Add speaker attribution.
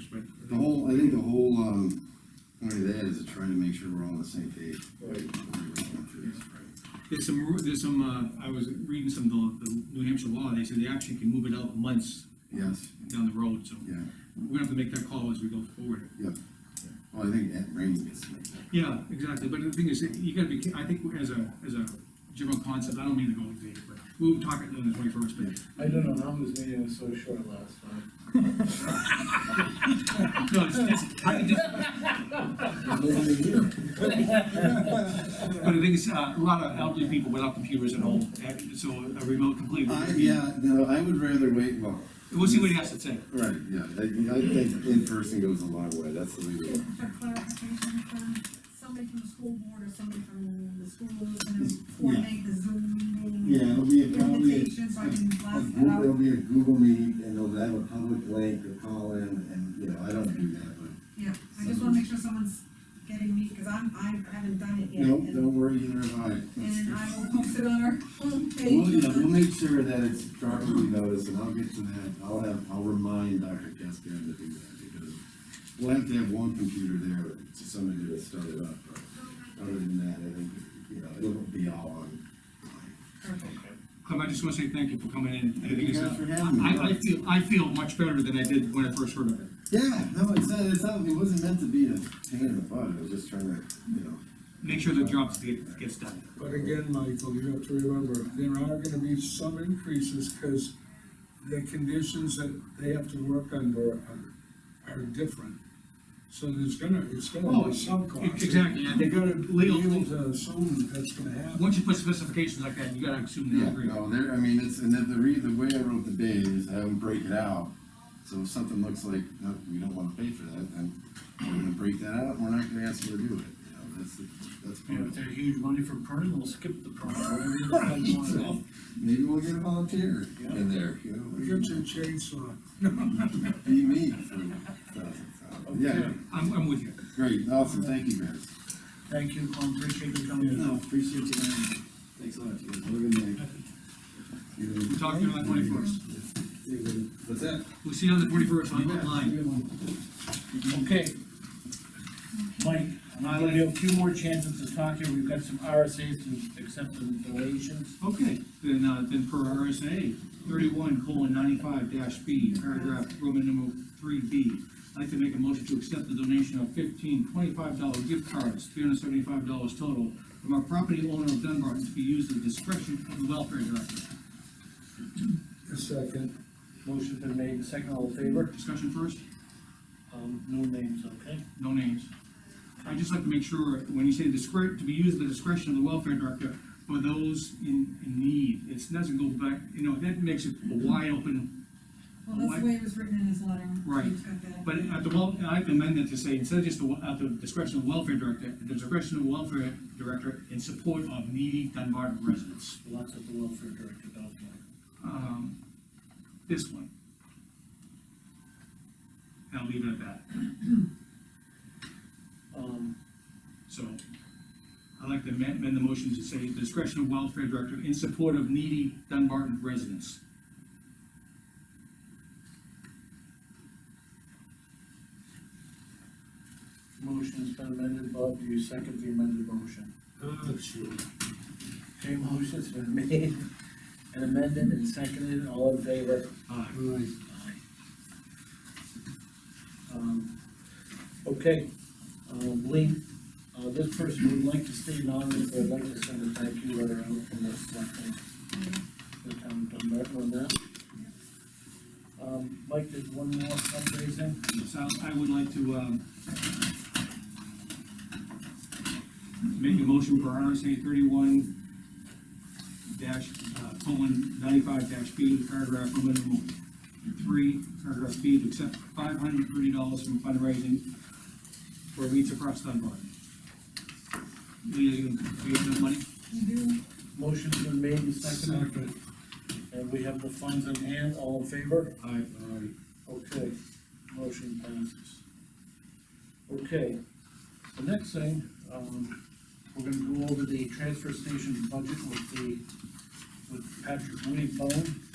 Speaker 1: The whole, I think the whole, um, point of that is to try to make sure we're all on the same page. Right.
Speaker 2: There's some, ru- there's some, uh, I was reading some of the, the New Hampshire law, they said they actually can move it out months
Speaker 1: Yes,
Speaker 2: down the road, so
Speaker 1: yeah,
Speaker 2: we're gonna have to make that call as we go forward.
Speaker 1: yeah. Well, I think that range is like,
Speaker 2: Yeah, exactly, but the thing is, you gotta be, I think as a, as a general concept, I don't mean to go into it, but we'll talk it on the twenty-first, but,
Speaker 3: I don't know how this meeting was so short last time.
Speaker 2: no, it's, it's, I can just,
Speaker 1: nobody here.
Speaker 2: but the thing is, uh, a lot of elderly people without computers at home, and so a remote completely.
Speaker 1: I, Uh, yeah, no, I would rather wait, well,
Speaker 2: We'll see what he has to say.
Speaker 1: right, yeah, I, I think in person goes a long way, that's the way to go.
Speaker 4: For clarification, from somebody from the school board or somebody from the school, gonna coordinate the Zoom
Speaker 1: Yeah,
Speaker 4: meeting.
Speaker 1: it'll be a probably, a-
Speaker 4: Invitation, so I can
Speaker 1: a
Speaker 4: blast it
Speaker 1: Google, it'll
Speaker 4: out,
Speaker 1: be a Google meet, and they'll have a public link to call in, and, you know, I don't do that, but.
Speaker 4: yeah, I just wanna make sure someone's getting me, cause I'm, I haven't done it yet.
Speaker 1: No,
Speaker 4: and-
Speaker 1: don't worry, you and I.
Speaker 4: And I will post it on our
Speaker 1: Well, yeah, we'll
Speaker 4: homepage.
Speaker 1: make sure that it's properly noticed, and I'll get to that, I'll have, I'll remind Dr. Cascad to do that, because we'll have to have one computer there to somebody to start it up, but other than that, I think, you know, it'll be all on.
Speaker 4: Perfect.
Speaker 2: Clem, I just wanna say thank you for coming in. I
Speaker 1: Thank you
Speaker 2: think it's,
Speaker 1: guys
Speaker 2: uh,
Speaker 1: for having me.
Speaker 2: I, I feel, I feel much better than I did when I first heard of it.
Speaker 1: Yeah, no, it's not, it's not, it wasn't meant to be a pain in the butt, it was just trying to, you know.
Speaker 2: Make sure the job get- gets done.
Speaker 5: But again, Michael, you have to remember, there are gonna be some increases, cause the conditions that they have to work under are, are different. So there's gonna, it's gonna
Speaker 2: Oh,
Speaker 5: be some cost.
Speaker 2: exactly, I
Speaker 5: You
Speaker 2: think,
Speaker 5: gotta be
Speaker 2: Leo-
Speaker 5: able to assume that's gonna happen.
Speaker 2: once you put specifications like that, you gotta assume they
Speaker 1: Yeah,
Speaker 2: agree.
Speaker 1: no, there, I mean, it's, and then the re, the way I wrote the bid is have them break it out. So if something looks like, no, we don't wanna pay for that, then we're gonna break that out, we're not gonna ask them to do it, you know, that's, the- that's
Speaker 6: Yeah,
Speaker 1: part of
Speaker 6: if
Speaker 1: it.
Speaker 6: they're huge money for printing, we'll skip the print, whatever you guys wanna do.
Speaker 1: Maybe we'll get a volunteer in there, you
Speaker 5: You Get
Speaker 1: know,
Speaker 5: your chainsaw.
Speaker 1: be me for thousands of dollars. Yeah,
Speaker 2: I'm, I'm with you.
Speaker 1: great, awesome, thank you guys.
Speaker 6: Thank you, Tom, appreciate you coming in.
Speaker 1: appreciate you, man. Thanks a lot, you guys, have a good night. You know-
Speaker 2: Talk to you on the 21st.
Speaker 1: What's that?
Speaker 2: We'll see you on the forty-first, I'm online.
Speaker 6: Okay. Mike, I'm gonna give you a few more chances to talk here, we've got some RSA's to accept some donations.
Speaker 2: Okay, then, uh, then per RSA thirty-one colon ninety-five dash B, paragraph Roman numeral three B. I'd like to make a motion to accept the donation of fifteen twenty-five dollar gift cards, three hundred seventy-five dollars total, from our property owner of Dunbarton to be used at the discretion of the welfare director.
Speaker 5: A second.
Speaker 6: Motion's been made, second all in favor,
Speaker 2: Discussion first,
Speaker 6: um, no names, okay?
Speaker 2: no names. I'd just like to make sure, when you say discretion, to be used at the discretion of the welfare director, for those in, in need, it doesn't go back, you know, that makes it a wide open
Speaker 4: Well, that's the way it was written in his letter.
Speaker 2: Right.
Speaker 4: He's got that.
Speaker 2: But at the well, I can amend that to say, instead of just the, at the discretion of welfare director, at the discretion of welfare director in support of needy Dunbarton residents.
Speaker 6: Lots of the welfare director down there.
Speaker 2: Um, this one. And I'll leave it at that,
Speaker 6: Um,
Speaker 2: so. I'd like to amend, amend the motion to say the discretion of welfare director in support of needy Dunbarton residents.
Speaker 6: motion's been amended, Bob, do you second the amended motion?
Speaker 5: Uh, sure.
Speaker 6: Okay, motion's been made and amended and seconded, all in favor?
Speaker 2: Uh,
Speaker 5: Right.
Speaker 6: Um, Okay, um, Lee, uh, this person would like to stay anonymous, but I'd like to send a thank you letter out from the selectmen, the town of Dunbar on that. Um, Mike, there's one more fundraising,
Speaker 2: So I would like to, um, make a motion for RSA thirty-one dash, uh, colon, ninety-five dash B, paragraph one, minimum three, paragraph B, to accept five hundred thirty dollars from fundraising for Reach Across Dunbar. Leah, you, do you have that money?
Speaker 4: You do,
Speaker 6: motion's been made and seconded,
Speaker 5: Second.
Speaker 6: and we have the funds in hand, all in favor?
Speaker 2: Aye.
Speaker 6: Okay, motion passes. Okay, the next thing, um, we're gonna go over the transfer station budget with the, with Patrick Winnie Bone.